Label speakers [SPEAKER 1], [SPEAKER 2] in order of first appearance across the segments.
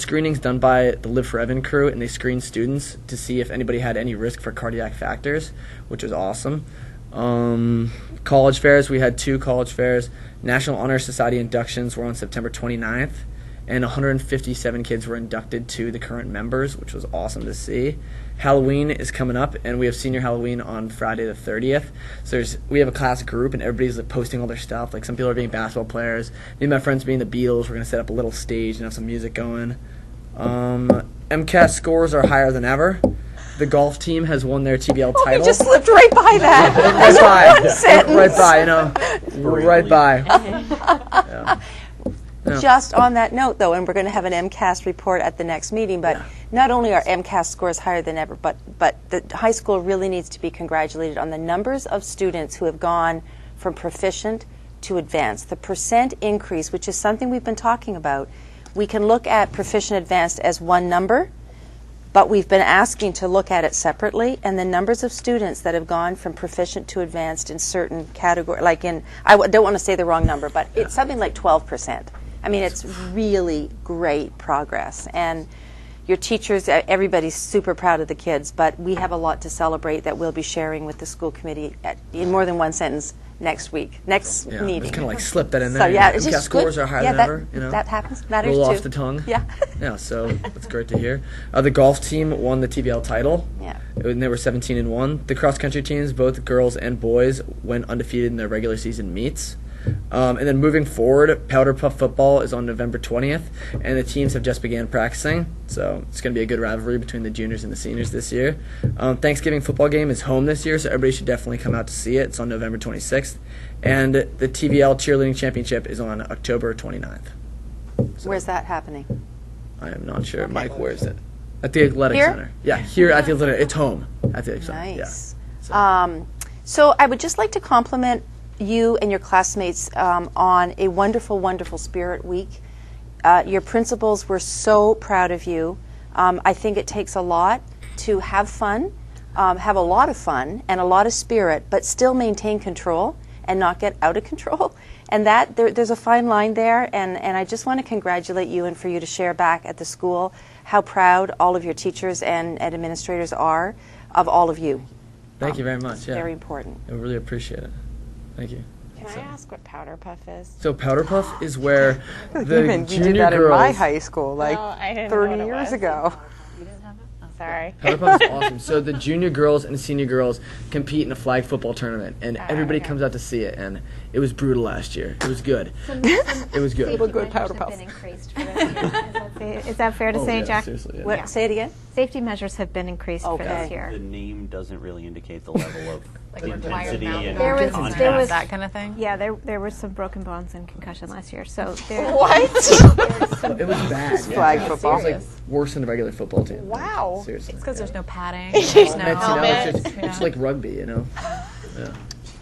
[SPEAKER 1] screenings done by the Live for Evan crew, and they screened students to see if anybody had any risk for cardiac factors, which was awesome. Um, college fairs, we had two college fairs. National Honor Society inductions were on September 29th, and 157 kids were inducted to the current members, which was awesome to see. Halloween is coming up, and we have senior Halloween on Friday the 30th. So there's we have a class group, and everybody's like posting all their stuff. Like some people are being basketball players. Me and my friends being the Beatles. We're gonna set up a little stage and have some music going. Um, MCAS scores are higher than ever. The golf team has won their TBL
[SPEAKER 2] We
[SPEAKER 1] title.
[SPEAKER 2] just slipped right by that.
[SPEAKER 1] right by,
[SPEAKER 2] One sentence.
[SPEAKER 1] right by, you know, right by. Yeah.
[SPEAKER 2] Just on that note, though, and we're going to have an MCAS report at the next meeting, but not only are MCAS scores higher than ever, but, but the high school really needs to be congratulated on the numbers of students who have gone from proficient to advanced. The percent increase, which is something we've been talking about, we can look at proficient advanced as one number, but we've been asking to look at it separately, and the numbers of students that have gone from proficient to advanced in certain category, like in, I w- don't want to say the wrong number, but it's something like 12%. I mean, it's really great progress. And your teachers, e- everybody's super proud of the kids, but we have a lot to celebrate that we'll be sharing with the school committee at, in more than one sentence next week, next
[SPEAKER 1] Yeah,
[SPEAKER 2] meeting.
[SPEAKER 1] Just kind of like slip that in there.
[SPEAKER 2] so, yeah,
[SPEAKER 1] MCAS
[SPEAKER 2] it's just
[SPEAKER 1] scores
[SPEAKER 2] good.
[SPEAKER 1] are higher
[SPEAKER 2] yeah,
[SPEAKER 1] than
[SPEAKER 2] that,
[SPEAKER 1] ever. You know,
[SPEAKER 2] that happens. Matters
[SPEAKER 1] roll
[SPEAKER 2] too.
[SPEAKER 1] off the tongue.
[SPEAKER 2] Yeah.
[SPEAKER 1] yeah, so that's great to hear. Uh, the golf team won the TBL title.
[SPEAKER 2] Yeah.
[SPEAKER 1] And they were 17 and 1. The cross country teams, both girls and boys, went undefeated in their regular season meets. Um, and then moving forward, Powder Puff football is on November 20th, and the teams have just began practicing. So it's going to be a good rivalry between the juniors and the seniors this year. Um, Thanksgiving football game is home this year, so everybody should definitely come out to see it. It's on November 26th. And the TBL Cheerleading Championship is on October 29th.
[SPEAKER 2] Where's that happening?
[SPEAKER 1] I am not sure. Mike, where is it? At the Athletic
[SPEAKER 2] Here?
[SPEAKER 1] Center. Yeah, here at the Athletic. It's home. At the Athletic Center. Yeah.
[SPEAKER 2] Nice. Um, so I would just like to compliment you and your classmates um, on a wonderful, wonderful Spirit Week. Uh, your principals were so proud of you. Um, I think it takes a lot to have fun, um, have a lot of fun and a lot of spirit, but still maintain control and not get out of control. And that there, there's a fine line there. And, and I just want to congratulate you and for you to share back at the school how proud all of your teachers and, and administrators are of all of you.
[SPEAKER 1] Thank you very much. Yeah.
[SPEAKER 2] Very important.
[SPEAKER 1] I really appreciate it. Thank you.
[SPEAKER 3] Can I ask what powder puff is?
[SPEAKER 1] So Powder Puff is where the
[SPEAKER 4] Even we
[SPEAKER 1] junior
[SPEAKER 4] did that
[SPEAKER 1] girls.
[SPEAKER 4] in my high school, like
[SPEAKER 3] Oh, I didn't know
[SPEAKER 4] 30
[SPEAKER 3] what it
[SPEAKER 4] years
[SPEAKER 3] was.
[SPEAKER 4] ago.
[SPEAKER 3] Sorry.
[SPEAKER 1] Powder Puff is awesome. So the junior girls and senior girls compete in a flag football tournament, and everybody comes out to see it. And it was brutal last year. It was good. it was good.
[SPEAKER 4] good powder puff.
[SPEAKER 5] been increased for this year. Is that fa- Is that fair to
[SPEAKER 1] Oh,
[SPEAKER 5] say,
[SPEAKER 1] yeah,
[SPEAKER 5] Jack?
[SPEAKER 1] seriously, yeah.
[SPEAKER 2] What, Say it again.
[SPEAKER 5] Safety measures have been increased for
[SPEAKER 2] Okay.
[SPEAKER 5] this year.
[SPEAKER 6] The name doesn't really indicate the level of intensity and
[SPEAKER 5] There was-
[SPEAKER 6] contact.
[SPEAKER 5] there was-
[SPEAKER 3] that kind of thing.
[SPEAKER 5] Yeah, there there were some broken bones and concussion last year. So there,
[SPEAKER 1] It was bad. yeah.
[SPEAKER 4] Flag football.
[SPEAKER 1] It was like worse than the regular football team. Wow. Seriously.
[SPEAKER 3] Because there's no padding. There's no
[SPEAKER 1] It's, you know,
[SPEAKER 3] helmet.
[SPEAKER 1] it's, just, it's like rugby, you know.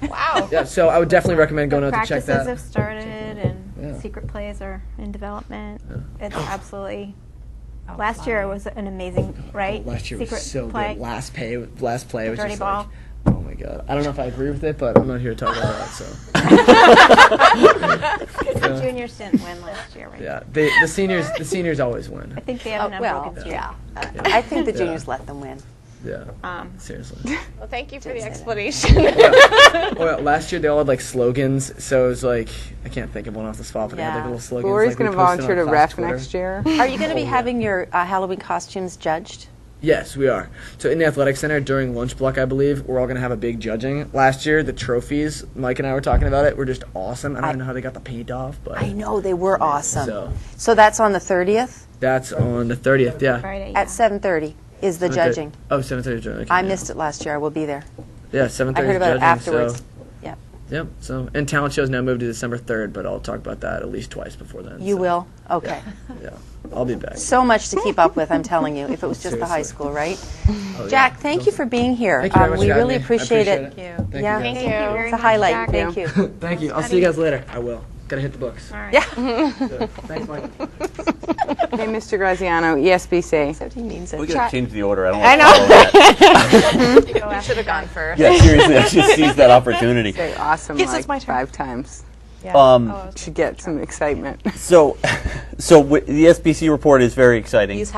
[SPEAKER 1] Wow. Yeah, so I would definitely recommend going out to check
[SPEAKER 5] practices
[SPEAKER 1] that.
[SPEAKER 5] have started and
[SPEAKER 1] Yeah.
[SPEAKER 5] secret plays are in development. It's absolutely. last year was an amazing, right?
[SPEAKER 1] Last year
[SPEAKER 5] secret
[SPEAKER 1] was so
[SPEAKER 5] play.
[SPEAKER 1] good. Last pay, last play was
[SPEAKER 5] Dirty
[SPEAKER 1] just
[SPEAKER 5] ball.
[SPEAKER 1] like, oh my god. I don't know if I agree with it, but I'm not here to talk about that. So
[SPEAKER 5] The juniors didn't win last year, right?
[SPEAKER 1] yeah, the the seniors the seniors always win.
[SPEAKER 5] I think they have an
[SPEAKER 2] Oh, well,
[SPEAKER 5] unbroken streak.
[SPEAKER 2] yeah. I think the juniors let them win.
[SPEAKER 1] Yeah.
[SPEAKER 5] Um,
[SPEAKER 1] Seriously. Oh,
[SPEAKER 3] Well, thank you for the explanation.
[SPEAKER 1] Well, last year they all had like slogans, so it was like I can't think of one off the spot, but they had like
[SPEAKER 2] Yeah.
[SPEAKER 1] little slogans.
[SPEAKER 4] Lori's
[SPEAKER 1] like, we
[SPEAKER 4] going to
[SPEAKER 1] posted on
[SPEAKER 4] volunteer to
[SPEAKER 1] class
[SPEAKER 4] ref
[SPEAKER 1] Twitter.
[SPEAKER 4] next year.
[SPEAKER 2] Are you
[SPEAKER 1] Oh,
[SPEAKER 2] going to be having your uh, Halloween costumes judged?
[SPEAKER 1] Yes, we are. So in the athletic center during lunch block, I believe we're all gonna have a big judging. Last year, the trophies Mike and I were talking about it were just awesome. I don't even know how they got the paint off, but
[SPEAKER 2] I know they were awesome.
[SPEAKER 1] So.
[SPEAKER 2] So, that's on the 30th
[SPEAKER 1] that's on the thirtieth. Yeah.
[SPEAKER 5] Friday.
[SPEAKER 2] at 7:30 is the judging.
[SPEAKER 1] Oh, 7.30 judging. Okay,
[SPEAKER 2] I
[SPEAKER 1] yeah.
[SPEAKER 2] missed it last year. I will be there.
[SPEAKER 1] Yeah, 7.30
[SPEAKER 2] I heard about
[SPEAKER 1] judging,
[SPEAKER 2] it afterwards.
[SPEAKER 1] So,
[SPEAKER 2] Yeah,
[SPEAKER 1] yep. So and talent shows now moved to December third, but I'll talk about that at least twice before then.
[SPEAKER 2] you
[SPEAKER 1] so,
[SPEAKER 2] will. Okay.
[SPEAKER 1] Yeah, I'll be back.
[SPEAKER 2] So much to keep up with. I'm telling you. If it was just the high
[SPEAKER 1] Seriously.
[SPEAKER 2] school, right?
[SPEAKER 1] Oh, yeah.
[SPEAKER 2] Jack, thank you for being here.
[SPEAKER 1] Thank you very much
[SPEAKER 2] Um, we
[SPEAKER 1] for having
[SPEAKER 2] really
[SPEAKER 1] me. I
[SPEAKER 2] appreciate, it.
[SPEAKER 1] appreciate it. Thank
[SPEAKER 2] yeah,
[SPEAKER 1] you guys.
[SPEAKER 3] Thank you.
[SPEAKER 5] very
[SPEAKER 2] it's a
[SPEAKER 5] much,
[SPEAKER 2] highlight.
[SPEAKER 5] Jack.
[SPEAKER 2] Thank you.
[SPEAKER 1] Thank you. I'll see you guys later. I will. Gotta hit the books.
[SPEAKER 5] All right.
[SPEAKER 1] Thanks, Mike.
[SPEAKER 4] Hey, Mr. Graziano, E ESBC.
[SPEAKER 6] We gotta change the order. I don't. I know.
[SPEAKER 3] should have gone first.
[SPEAKER 6] Yeah, seriously, I just seized that opportunity.
[SPEAKER 4] Say awesome
[SPEAKER 3] Yes,
[SPEAKER 4] like
[SPEAKER 3] it's my turn.
[SPEAKER 4] five times.
[SPEAKER 3] Yeah.
[SPEAKER 6] Um,
[SPEAKER 3] Oh, I was
[SPEAKER 4] Should get some excitement.
[SPEAKER 6] So, so w- the SBC report is very exciting.
[SPEAKER 3] He's